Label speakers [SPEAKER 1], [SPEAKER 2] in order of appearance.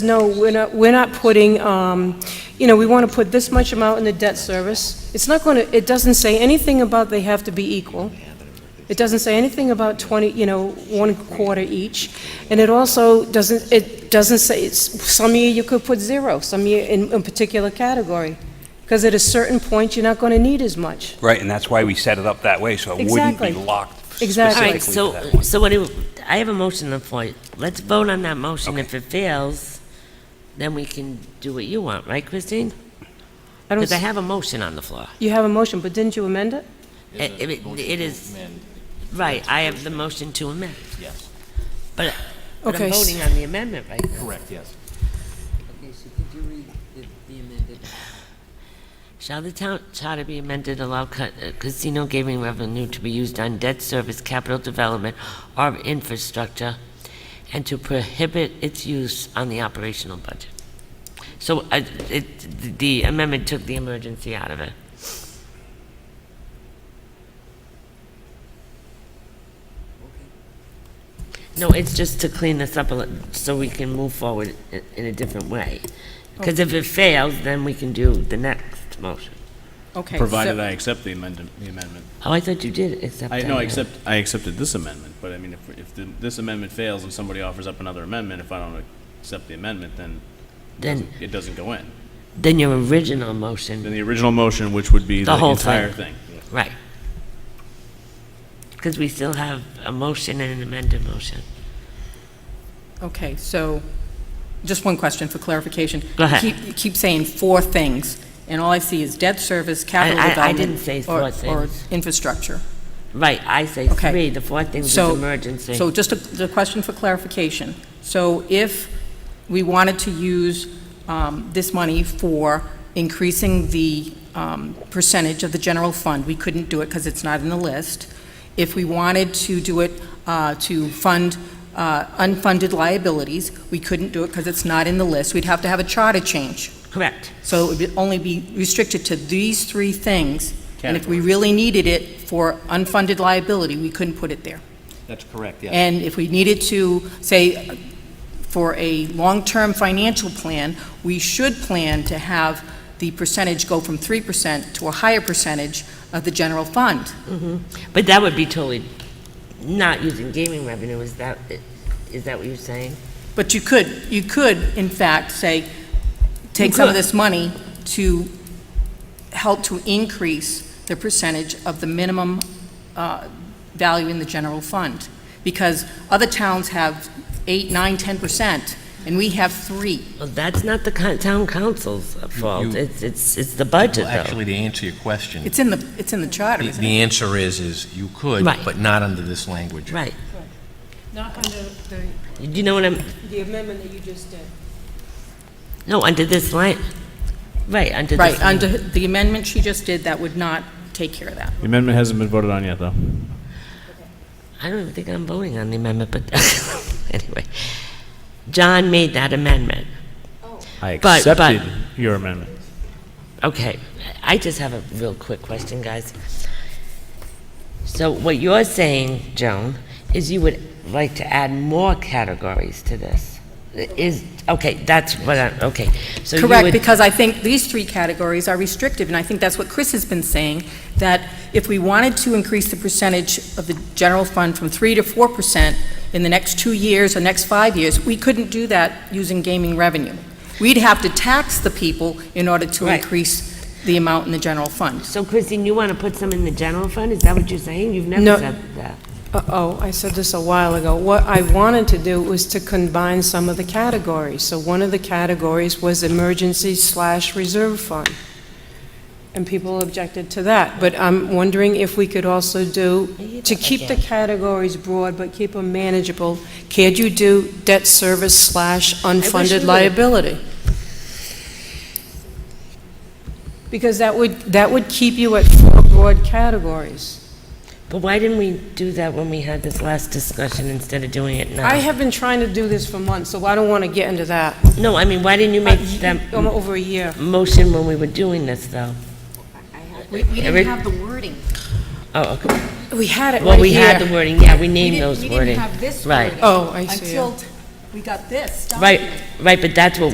[SPEAKER 1] No, we're not, we're not putting, um, you know, we want to put this much amount in the debt service. It's not going to, it doesn't say anything about they have to be equal. It doesn't say anything about 20, you know, one quarter each. And it also doesn't, it doesn't say, it's- some year you could put zero, some year in a particular category. Because at a certain point, you're not going to need as much.
[SPEAKER 2] Right, and that's why we set it up that way, so it wouldn't
[SPEAKER 1] Exactly.
[SPEAKER 2] be locked
[SPEAKER 1] Exactly.
[SPEAKER 2] specifically to
[SPEAKER 3] All
[SPEAKER 2] that
[SPEAKER 3] right, so,
[SPEAKER 2] one.
[SPEAKER 3] so what do, I have a motion on the floor. Let's vote on that motion. If it fails, then we can do what you want, right, Christine?
[SPEAKER 1] I don't,
[SPEAKER 3] Because I have a motion on the floor.
[SPEAKER 1] you have a motion, but didn't you amend it?
[SPEAKER 3] It it- it is, right, I have the motion to amend.
[SPEAKER 4] Yes,
[SPEAKER 3] But but
[SPEAKER 1] Okay,
[SPEAKER 3] I'm
[SPEAKER 1] s-
[SPEAKER 3] voting on the amendment right now.
[SPEAKER 4] correct, yes.
[SPEAKER 5] Okay, so could you read the the amended?
[SPEAKER 3] Shall the town charter be amended to allow ca- uh, casino gaming revenue to be used on debt service, capital development, or infrastructure, and to prohibit its use on the operational budget? So uh, it- the amendment took the emergency out of it. No, it's just to clean this up a little, so we can move forward i- in a different way. Because if it fails, then we can do the next motion.
[SPEAKER 1] Okay.
[SPEAKER 6] Provided
[SPEAKER 1] so-
[SPEAKER 6] I accept the amendment, the amendment.
[SPEAKER 3] Oh, I thought you did accept
[SPEAKER 6] I,
[SPEAKER 3] that.
[SPEAKER 6] no, I accept, I accepted this amendment, but I mean, if, if the- this amendment fails and somebody offers up another amendment, if I don't accept the amendment, then
[SPEAKER 3] Then,
[SPEAKER 6] it doesn't go in.
[SPEAKER 3] then your original motion
[SPEAKER 6] Then the original motion, which would be
[SPEAKER 3] The
[SPEAKER 6] the
[SPEAKER 3] whole
[SPEAKER 6] entire thing.
[SPEAKER 3] Right. Because we still have a motion and an amended motion.
[SPEAKER 7] Okay, so, just one question for clarification.
[SPEAKER 3] Go ahead.
[SPEAKER 7] You keep- you keep saying four things, and all I see is debt service, capital
[SPEAKER 3] I- I
[SPEAKER 7] development...
[SPEAKER 3] didn't say
[SPEAKER 7] or-
[SPEAKER 3] four things.
[SPEAKER 7] Or infrastructure.
[SPEAKER 3] Right, I say
[SPEAKER 7] Okay.
[SPEAKER 3] three, the fourth thing is
[SPEAKER 7] So,
[SPEAKER 3] emergency.
[SPEAKER 7] So just a, the question for clarification. So if we wanted to use um, this money for increasing the um, percentage of the general fund, we couldn't do it because it's not in the list. If we wanted to do it uh, to fund uh, unfunded liabilities, we couldn't do it because it's not in the list. We'd have to have a charter change.
[SPEAKER 3] Correct.
[SPEAKER 7] So it would only be restricted to these three things. And if we
[SPEAKER 6] Categories.
[SPEAKER 7] really needed it for unfunded liability, we couldn't put it there.
[SPEAKER 4] That's correct, yes.
[SPEAKER 7] And if we needed to, say, for a long-term financial plan, we should plan to have the percentage go from 3% to a higher percentage of the general fund.
[SPEAKER 3] But that would be totally not using gaming revenue, is that, is that what you're saying?
[SPEAKER 7] But you could, you could, in fact, say, take some of this money to help to increase the percentage of the minimum uh, value in the general fund. Because other towns have 8, 9, 10%, and we have 3.
[SPEAKER 3] Well, that's not the co- town council's uh, fault,
[SPEAKER 4] you-
[SPEAKER 3] it's, it's, it's the budget
[SPEAKER 4] Well,
[SPEAKER 3] though.
[SPEAKER 4] actually, to answer your question,
[SPEAKER 7] It's in the, it's in the charter,
[SPEAKER 4] the
[SPEAKER 7] isn't
[SPEAKER 4] the
[SPEAKER 7] it?
[SPEAKER 4] answer is, is you could,
[SPEAKER 3] Right.
[SPEAKER 4] but not under this language.
[SPEAKER 3] Right,
[SPEAKER 1] Not under the,
[SPEAKER 3] do you know what I'm,
[SPEAKER 1] the amendment that you just did.
[SPEAKER 3] no, under this line, right, under this.
[SPEAKER 7] Right,
[SPEAKER 3] line.
[SPEAKER 7] under the amendment she just did, that would not take care of that.
[SPEAKER 6] The amendment hasn't been voted on yet, though.
[SPEAKER 3] I don't even think I'm voting on the amendment, but anyway. John made that amendment.
[SPEAKER 6] I
[SPEAKER 3] But- but-
[SPEAKER 6] accepted your amendment.
[SPEAKER 3] Okay, I just have a real quick question, guys. So what you're saying, Joan, is you would like to add more categories to this? Is, okay, that's what I, okay. So you
[SPEAKER 7] Correct,
[SPEAKER 3] would-
[SPEAKER 7] because I think these three categories are restrictive, and I think that's what Chris has been saying, that if we wanted to increase the percentage of the general fund from 3 to 4 percent in the next two years or next five years, we couldn't do that using gaming revenue. We'd have to tax the people in order to
[SPEAKER 3] Right.
[SPEAKER 7] increase the amount in the general fund.
[SPEAKER 3] So Christine, you want to put some in the general fund? Is that what you're saying? You've never
[SPEAKER 1] No.
[SPEAKER 3] said that.
[SPEAKER 1] Uh-oh, I said this a while ago. What I wanted to do was to combine some of the categories. So one of the categories was emergency slash reserve fund. And people objected to that. But I'm wondering if we could also do, to keep the categories broad, but keep them manageable, could you do debt service slash unfunded
[SPEAKER 3] would've.
[SPEAKER 1] liability? Because that would, that would keep you at four broad categories.
[SPEAKER 3] But why didn't we do that when we had this last discussion instead of doing it now?
[SPEAKER 1] I have been trying to do this for months, so I don't want to get into that.
[SPEAKER 3] No, I mean, why didn't you make that
[SPEAKER 1] Um, Over a year.
[SPEAKER 3] motion when we were doing this, though?
[SPEAKER 5] We we didn't
[SPEAKER 3] Eric?
[SPEAKER 5] have the wording.
[SPEAKER 3] Oh, okay.
[SPEAKER 1] We had it
[SPEAKER 3] Well,
[SPEAKER 1] right
[SPEAKER 3] we had
[SPEAKER 1] here.
[SPEAKER 3] the wording, yeah, we
[SPEAKER 5] We
[SPEAKER 3] named
[SPEAKER 5] didn't-
[SPEAKER 3] those wording.
[SPEAKER 5] We didn't have this
[SPEAKER 3] Right.
[SPEAKER 5] wording.
[SPEAKER 1] Oh, I see.
[SPEAKER 5] Until
[SPEAKER 7] we got this document.
[SPEAKER 3] Right, right, but that's what